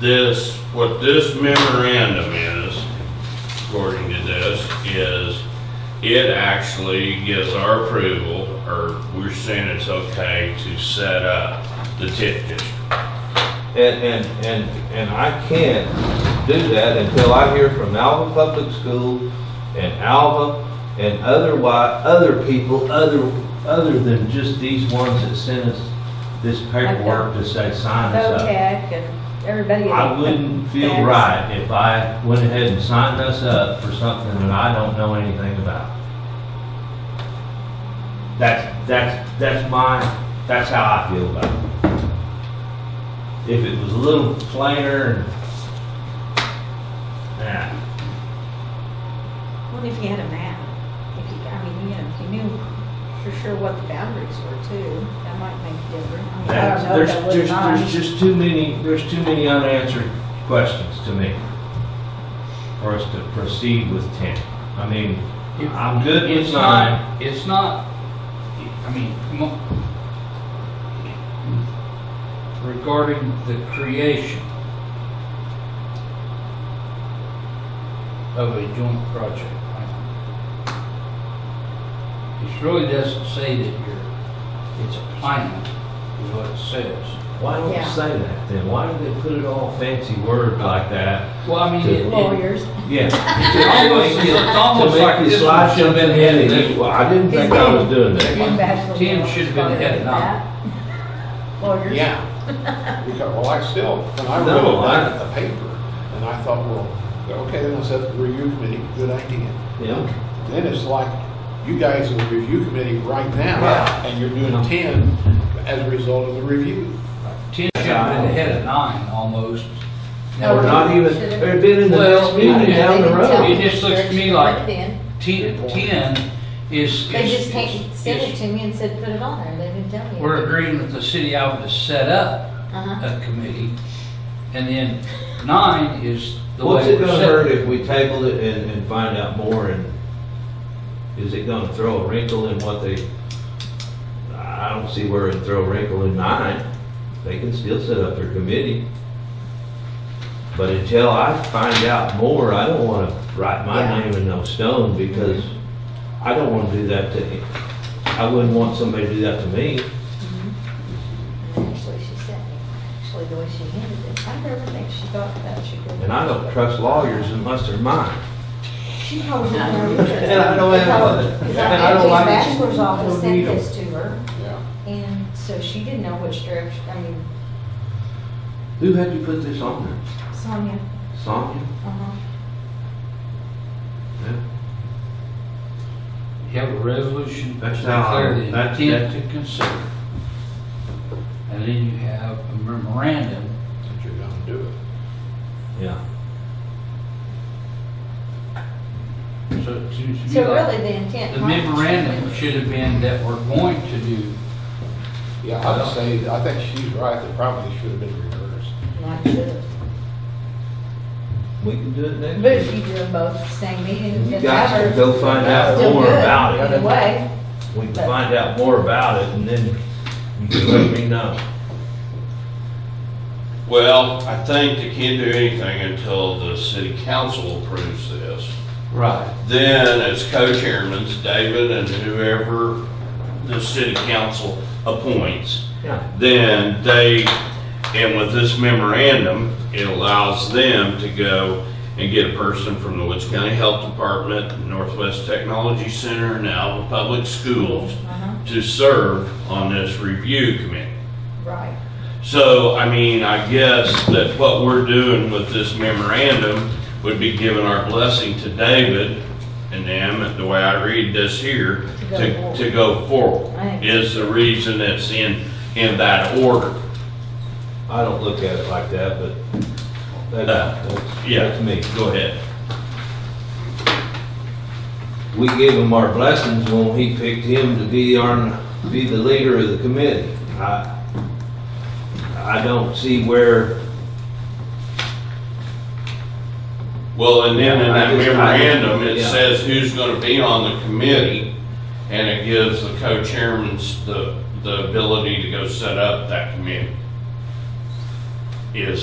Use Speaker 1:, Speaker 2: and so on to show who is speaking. Speaker 1: this, what this memorandum is, according to this, is it actually gives our approval, or we're saying it's okay to set up the TIF district.
Speaker 2: And, and, and, and I can't do that until I hear from Alva Public School and Alva and otherwise, other people, other, other than just these ones that sent us this paperwork to say sign us up.
Speaker 3: OTEC and everybody.
Speaker 2: I wouldn't feel right if I went ahead and signed us up for something that I don't know anything about. That's, that's, that's my, that's how I feel about it. If it was a little plainer and, nah,
Speaker 3: What if you had a map? If you, I mean, you know, if you knew for sure what the boundaries were too, that might make a difference. I mean, I
Speaker 4: uh,
Speaker 2: that's,
Speaker 3: don't know if
Speaker 2: there's,
Speaker 3: that would
Speaker 2: there's,
Speaker 3: not.
Speaker 2: there's just too many, there's too many unanswered questions to me for us to proceed with ten. I mean, I'm good with
Speaker 5: It's
Speaker 2: nine.
Speaker 5: not, it's not, I mean, mo- regarding the creation of a joint project. It really doesn't say that you're, it's a plan, is what it says.
Speaker 2: Why don't you
Speaker 3: Yeah.
Speaker 2: say that then? Why do they put it all fancy word like that?
Speaker 5: Well, I mean, it, it-
Speaker 3: Lawyers.
Speaker 2: Yeah.
Speaker 5: it's almost, it's almost like this one should have been headed this way.
Speaker 2: Well, I didn't think I was doing that.
Speaker 3: Jim Bachelor
Speaker 5: Tim
Speaker 3: was
Speaker 5: should have been
Speaker 3: part of
Speaker 5: headed on.
Speaker 3: that. Lawyers.
Speaker 5: Yeah,
Speaker 6: Because, well, I still, when I
Speaker 2: No,
Speaker 6: read it,
Speaker 2: I-
Speaker 6: I got the paper, and I thought, well, okay, then I said, the review committee, good idea.
Speaker 2: Yeah.
Speaker 6: Then it's like, you guys are the review committee right now,
Speaker 2: Yeah.
Speaker 6: and you're doing ten as a result of the review.
Speaker 5: Tim should have been headed nine almost.
Speaker 3: No,
Speaker 2: Or not even,
Speaker 3: Should've-
Speaker 2: or been in the next
Speaker 5: Well,
Speaker 2: meeting down the road.
Speaker 5: It just looks to me like-
Speaker 4: They
Speaker 5: Ten, ten is.
Speaker 4: just
Speaker 5: is-
Speaker 4: take, sent it
Speaker 5: is-
Speaker 4: to me and said, put it on there, they didn't tell me.
Speaker 5: We're agreeing with the city Alva to set up
Speaker 4: Uh-huh.
Speaker 5: a committee, and then nine is the way
Speaker 2: What's it
Speaker 5: we're
Speaker 2: gonna
Speaker 5: set-
Speaker 2: hurt if we table it and, and find out more and is it gonna throw a wrinkle in what they, I don't see where it'd throw a wrinkle in nine. They can still set up their committee. But until I find out more, I don't wanna write my
Speaker 3: Yeah.
Speaker 2: name in no stone because I don't wanna do that to, I wouldn't want somebody to do that to me.
Speaker 4: Actually, she sent me, actually, the way she handled it, I never think she thought that she could.
Speaker 2: And I don't trust lawyers unless they're mine.
Speaker 4: She probably didn't know. either.
Speaker 2: And I don't have one.
Speaker 4: Because
Speaker 2: And I
Speaker 4: I
Speaker 2: don't
Speaker 4: think
Speaker 2: like it.
Speaker 4: bachelor's office
Speaker 2: Don't need
Speaker 4: sent
Speaker 2: 'em.
Speaker 4: this to her,
Speaker 6: Yeah.
Speaker 4: and so she didn't know which direction, I mean,
Speaker 2: Who had you put this on there?
Speaker 4: Sonia,
Speaker 2: Sonia?
Speaker 4: uh-huh,
Speaker 2: Yeah.
Speaker 5: You have a resolution to
Speaker 2: That's how I-
Speaker 5: declare the
Speaker 2: that's-
Speaker 5: intent
Speaker 2: that's-
Speaker 5: to consider. And then you have a memorandum,
Speaker 6: That you're gonna do it.
Speaker 2: Yeah.
Speaker 5: so it seems to me
Speaker 4: so really
Speaker 5: like
Speaker 4: the intent.
Speaker 5: the
Speaker 4: might have
Speaker 5: memorandum
Speaker 4: been-
Speaker 5: should have been that we're going to do,
Speaker 6: Yeah, I'd say, I think she's right, it probably should have been reversed.
Speaker 4: Might should've.
Speaker 2: We can do it next
Speaker 4: But if
Speaker 2: week.
Speaker 4: you do them both at the same meeting,
Speaker 2: You
Speaker 4: it
Speaker 2: guys
Speaker 4: matters.
Speaker 2: can go find out
Speaker 4: Still
Speaker 2: more
Speaker 4: good,
Speaker 2: about
Speaker 4: Either
Speaker 2: it.
Speaker 4: way,
Speaker 2: We can find out more about it and then you can let me know.
Speaker 1: Well, I think they can't do anything until the city council approves this.
Speaker 5: right,
Speaker 1: Then it's co-chairmans, David and whoever the city council appoints.
Speaker 2: Yeah.
Speaker 1: Then they, and with this memorandum, it allows them to go and get a person from the Woods County Health Department, Northwest Technology Center, and Alva Public Schools
Speaker 4: Uh-huh,
Speaker 1: to serve on this review committee.
Speaker 4: right.
Speaker 1: So, I mean, I guess that what we're doing with this memorandum would be giving our blessing to David and them, the way I read this here,
Speaker 4: To go
Speaker 1: to,
Speaker 4: forward.
Speaker 1: to go forward.
Speaker 4: Right.
Speaker 1: Is the reason it's in, in that order.
Speaker 2: I don't look at it like that, but that- that's,
Speaker 1: Uh, Yeah.
Speaker 2: that's me.
Speaker 1: Go ahead.
Speaker 2: We gave him our blessings when he picked him to be our, be the leader of the committee. I, I don't see where
Speaker 1: Well, and then in that
Speaker 2: I just- I-
Speaker 1: memorandum, it
Speaker 2: yeah.
Speaker 1: says who's gonna be on the committee, and it gives the co-chairmans the, the ability to go set up that committee. Is